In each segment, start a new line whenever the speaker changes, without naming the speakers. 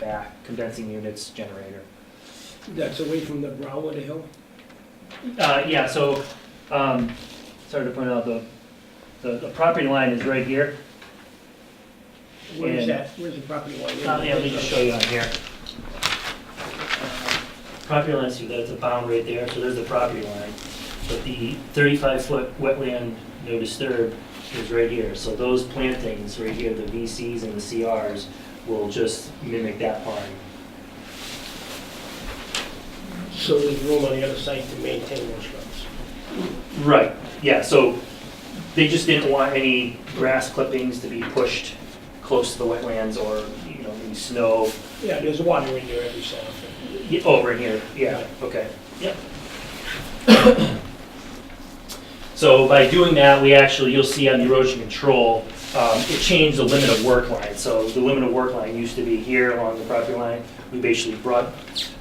back, condensing units, generator.
That's away from the brow of the hill?
Uh, yeah, so, um, sorry to point out, the, the, the property line is right here.
Where is
And-
that, where's the property line?
Uh, yeah, let me just show you on here. Property line, see, that's a bound right there, so there's the property line. But the thirty-five foot wetland no disturb is right here, so those plantings right here, the VCs and the CRs will just mimic that line.
So there's room on the other side to maintain those shrubs?
Right, yeah, so they just didn't want any grass clippings to be pushed close to the wetlands or, you know, any snow
Yeah, there's water in there every so often.
y- over in here, yeah, okay, yep. So by doing that, we actually, you'll see on the erosion control, um, it changed the limit of work line. So the limit of work line used to be here along the property line, we basically brought,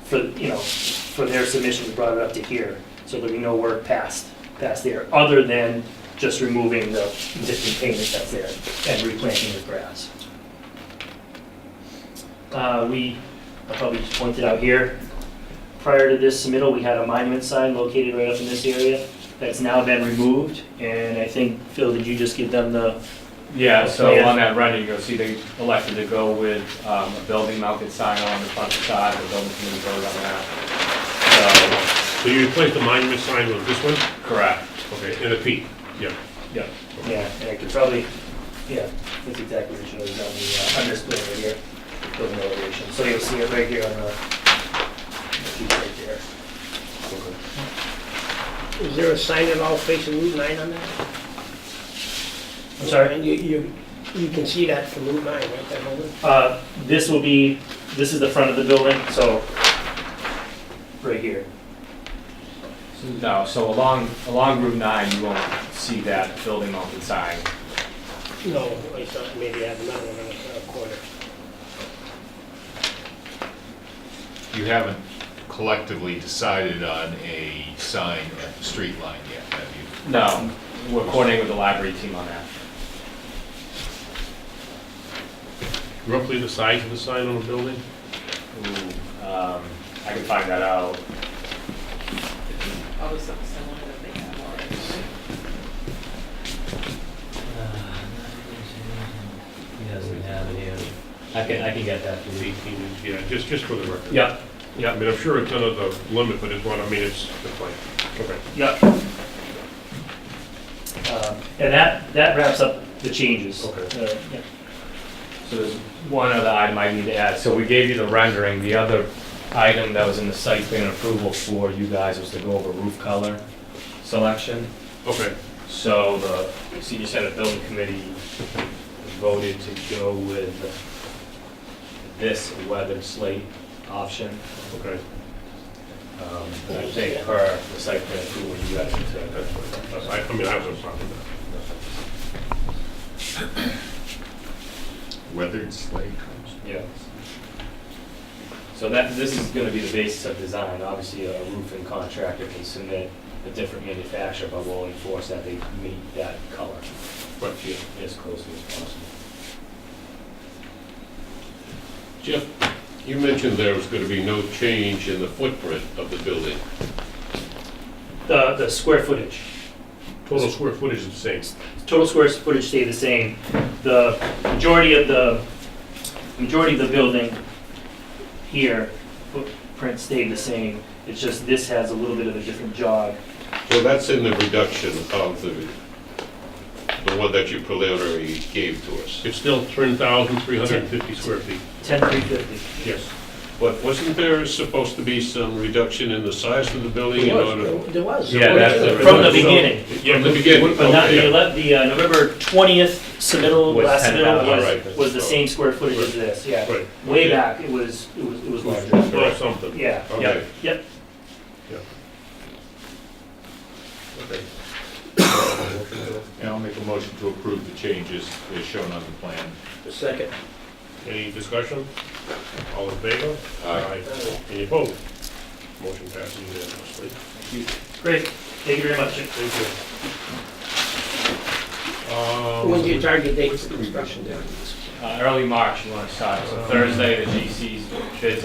for, you know, for their submission, we brought it up to here. So there'll be no work past, past there, other than just removing the existing pavement that's there and replanting with grass. Uh, we, I probably just pointed out here, prior to this submittal, we had a monument sign located right up in this area that's now been removed, and I think, Phil, did you just give them the,
Yeah, so
Yeah.
on that rendering, you'll see they elected to go with um, a building mounted sign on the front facade, the building committee voted on that.
So you replaced the monument sign with this one?
So, correct,
Okay, and a peak, yeah.
yeah.
yeah, and I could probably, yeah, that's exactly what it shows on the, uh, on this plan right here, building elevation. So you'll see it right here on the, the piece right there.
Is there a sign at all facing Route 9 on that?
I'm sorry?
And You, you, you can see that from Route 9, right, that building?
Uh, this will be, this is the front of the building, so, right here.
No, so along, along Route 9, you won't see that building mounted sign.
No, I thought maybe I had another one on the corner.
You haven't collectively decided on a sign at the street line yet, have you?
No, we're coordinating with the library team on that.
Roughly the size of the sign on the building?
Ooh, um, I can find that out.
Probably something similar that they have already.
Uh, He doesn't have it here. I can, I can get that for you.
Eighteen inch, yeah, just, just for the record.
Yep,
I mean, I'm sure it's under the limit, but it's what, I mean, it's the plan. Okay.
Yep. Um, And that, that wraps up the changes.
Okay.
Uh, yeah.
So there's one other item I need to add. So we gave you the rendering. The other item that was in the site plan approval for you guys was to go over roof color selection.
Okay,
So the senior senate building committee voted to go with this weathered slate option.
okay.
Um, And I think per the site plan approval, you guys need
That's
to.
fine. That's- I, I mean, I have no problem with that.
Weathered slate.
Yeah. So that, this is gonna be the basis of design. Obviously, a roofing contractor can submit a different manufacturer, but we'll enforce that they meet that color.
Right.
to As closely as possible.
Jeff, you mentioned there was gonna be no change in the footprint of the building.
The, the square footage,
Total square footage is the same.
total square footage stayed the same. The majority of the, majority of the building here, footprint stayed the same. It's just this has a little bit of a different jog.
So that's in the reduction of the, the one that you preliminary gave to us. It's still 10,350 square feet.
Ten three fifty.
Yes. But wasn't there supposed to be some reduction in the size of the building in
There was,
order?
there- there was.
Yeah, that's the-
From the beginning.
Yeah, the beginning,
But not, the
okay.
ele the uh, November twentieth submittal,
Was
last
10,000,
submittal was,
right.
was the same square footage as this, yeah.
Right.
Way back, it was, it was, it was larger.
Or something.
Yeah,
Okay.
yep, yep.
Okay.
And I'll make a motion to approve the changes as shown on the plan.
Second.
Any discussion? All in favor?
Aye.
Any opposed? Motion passes unanimously.
Great, thank you very much.
Thank you. Um,
When's your target date
What's
for
呃
the
construction?
reduction down?
Um, uh, early March you wanna start, so Thursday, the GC's bids are